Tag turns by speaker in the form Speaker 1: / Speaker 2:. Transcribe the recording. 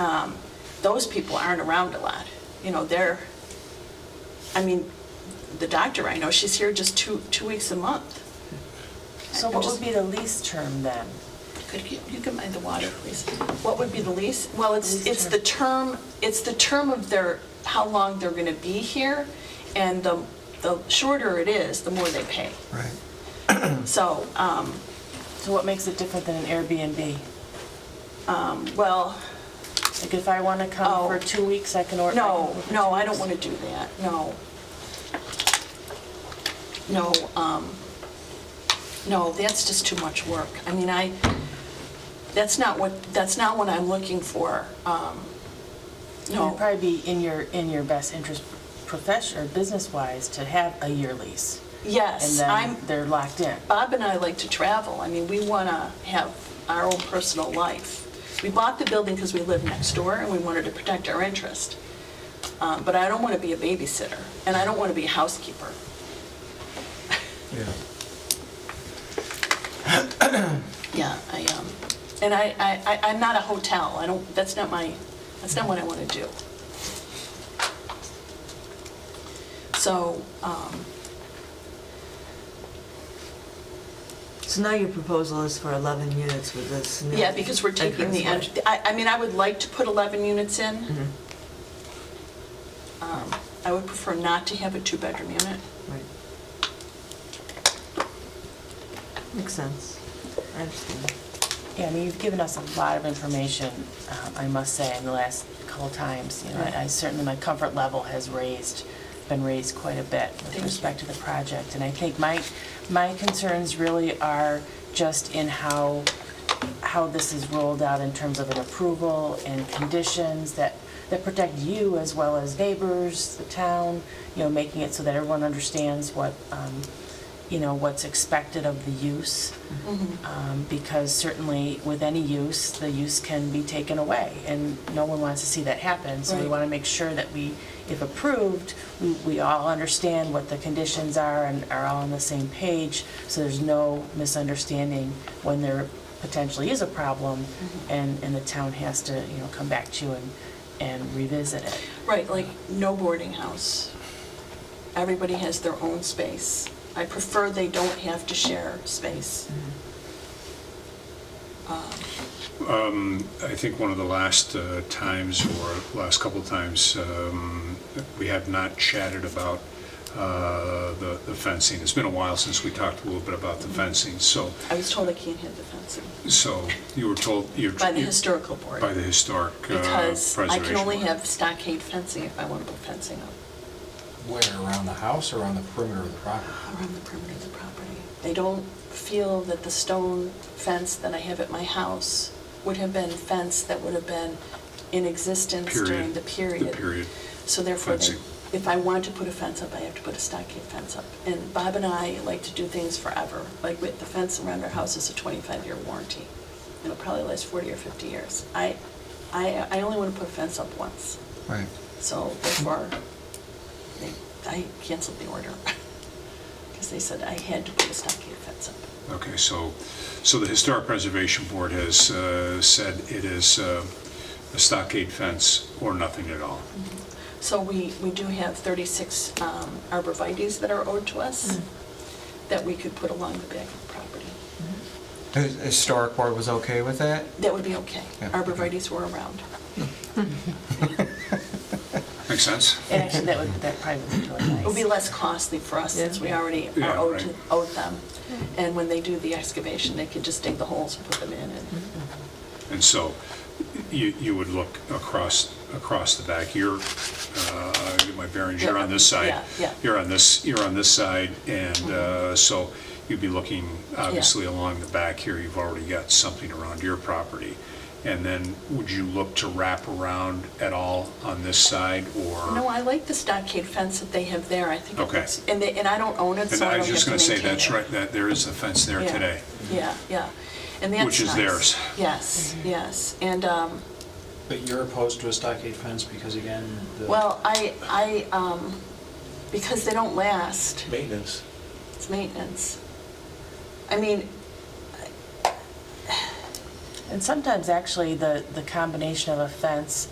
Speaker 1: Um, those people aren't around a lot. You know, they're, I mean, the doctor I know, she's here just two, two weeks a month.
Speaker 2: So
Speaker 1: I'm
Speaker 2: what
Speaker 1: just-
Speaker 2: would be the lease term then?
Speaker 1: Could you, you can mind the water, please. What would be the lease? Well, it's,
Speaker 2: Lease
Speaker 1: it's
Speaker 2: term.
Speaker 1: the term, it's the term of their, how long they're gonna be here, and the, the shorter it is, the more they pay.
Speaker 3: Right.
Speaker 1: So, um,
Speaker 2: So what makes it different than an Airbnb?
Speaker 1: well,
Speaker 2: Like if I want to
Speaker 1: Oh.
Speaker 2: come for two weeks, I can order.
Speaker 1: no, no, I don't wanna do that, no. No, um, no, that's just too much work. I mean, I, that's not what, that's not what I'm looking for, um, no.
Speaker 2: It'd probably be in your, in your best interest profession, or business-wise, to have a year lease. And
Speaker 1: Yes, I'm,
Speaker 2: then they're locked in.
Speaker 1: Bob and I like to travel. I mean, we want to have our own personal life. We bought the building because we live next door and we wanted to protect our interest. Um, But I don't want to be a babysitter and I don't want to be a housekeeper.
Speaker 3: Yeah.
Speaker 1: Yeah, I, um, and I, I, I- I'm not a hotel. I don't, that's not my, that's not what I want to do. So, um,
Speaker 4: So now your proposal is for 11 units with this new...
Speaker 1: yeah, because we're taking the,
Speaker 4: entrance
Speaker 1: en-
Speaker 4: way.
Speaker 1: I, I mean, I would like to put 11 units in. Um, I would prefer not to have a two-bedroom unit.
Speaker 4: Right. Makes sense. I understand.
Speaker 2: Yeah, I mean, you've given us a lot of information, um, I must say, in the last couple of times. You know, I I certainly, my comfort level has raised, been raised quite a bit
Speaker 1: Thank
Speaker 2: with
Speaker 1: you.
Speaker 2: respect to the project. And I think my, my concerns really are just in how, how this is rolled out in terms of an approval and conditions that, that protect you as well as neighbors, the town, you know, making it so that everyone understands what, um, you know, what's expected of the use um, because certainly with any use, the use can be taken away, and no one wants to see that happen. So we
Speaker 1: Right.
Speaker 2: want to make sure that we, if approved, we- we all understand what the conditions are and are all on the same page, so there's no misunderstanding when there potentially is a problem,
Speaker 1: Mm-hmm.
Speaker 2: and, and the town has to, you know, come back to you and, and revisit it.
Speaker 1: Right, like, no boarding house. Everybody has their own space. I prefer they don't have to share space.
Speaker 5: I think one of the last uh, times, or last couple of times, um, we have not chatted about uh, the the fencing. It's been a while since we talked a little bit about the fencing, so,
Speaker 1: I was told I can't have the fencing
Speaker 5: so you were told, you're...
Speaker 1: by the historical board.
Speaker 5: By the historic uh,
Speaker 1: Because
Speaker 5: preservation.
Speaker 1: I can only
Speaker 5: Board.
Speaker 1: have stockade fencing if I want to put fencing up
Speaker 6: Where, around the house or on the perimeter of the property?
Speaker 1: around the perimeter of the property. They don't feel that the stone fence that I have at my house would have been fence that would have been in existence during
Speaker 5: Period.
Speaker 1: the period.
Speaker 5: The period.
Speaker 1: So therefore, they-
Speaker 5: Fencing.
Speaker 1: if I want to put a fence up, I have to put a stockade fence up. And Bob and I like to do things forever, like with the fence around our house is a 25-year warranty. It'll probably last 40 or 50 years. I, I, I only want to put a fence up once,
Speaker 3: Right.
Speaker 1: so therefore, they- I canceled the order. Because they said I had to put a stockade fence up.
Speaker 5: Okay, so, so the Historic Preservation Board has uh, said it is uh, a stockade fence or nothing at all.
Speaker 1: So we, we do have 36 um, arborvitae's that are owed to us that we could put along the back of the property.
Speaker 3: The Historic board was okay with that?
Speaker 1: That would be okay.
Speaker 3: Yeah.
Speaker 1: Arborvitae's were around.
Speaker 5: Make sense?
Speaker 2: And actually, that would, that probably would be really nice.
Speaker 1: It would be less costly for us since we already are
Speaker 5: Yeah,
Speaker 1: owed to-
Speaker 5: right.
Speaker 1: owed them. And when they do the excavation, they can just dig the holes and put them in and
Speaker 5: And so you, you would look across, across the back, you're, uh, get my bearings, you're on this
Speaker 1: Yeah,
Speaker 5: side.
Speaker 1: yeah. Mm-hmm.
Speaker 5: You're on this, you're on this side, and uh, so you'd be looking, obviously, along the back here, you've already got something around your property. And then would you look to wrap around at all on this side, or?
Speaker 1: No, I like the stockade fence that they have there, I think. it
Speaker 5: Okay.
Speaker 1: looks- And they, and I don't own it,
Speaker 5: And
Speaker 1: so I
Speaker 5: I
Speaker 1: don't
Speaker 5: was
Speaker 1: have
Speaker 5: just
Speaker 1: to
Speaker 5: gonna say,
Speaker 1: maintain
Speaker 5: that's
Speaker 1: it.
Speaker 5: right, that there is a fence there
Speaker 1: Yeah.
Speaker 5: today.
Speaker 1: Yeah, yeah. And that's
Speaker 5: Which is
Speaker 1: nice.
Speaker 5: theirs.
Speaker 1: Yes, yes. And, um,
Speaker 6: But you're opposed to a stockade fence because again, the...
Speaker 1: well, I, I, um, because they don't last,
Speaker 7: Maintenance.
Speaker 1: it's maintenance. I mean,
Speaker 2: And sometimes, actually, the, the combination of a fence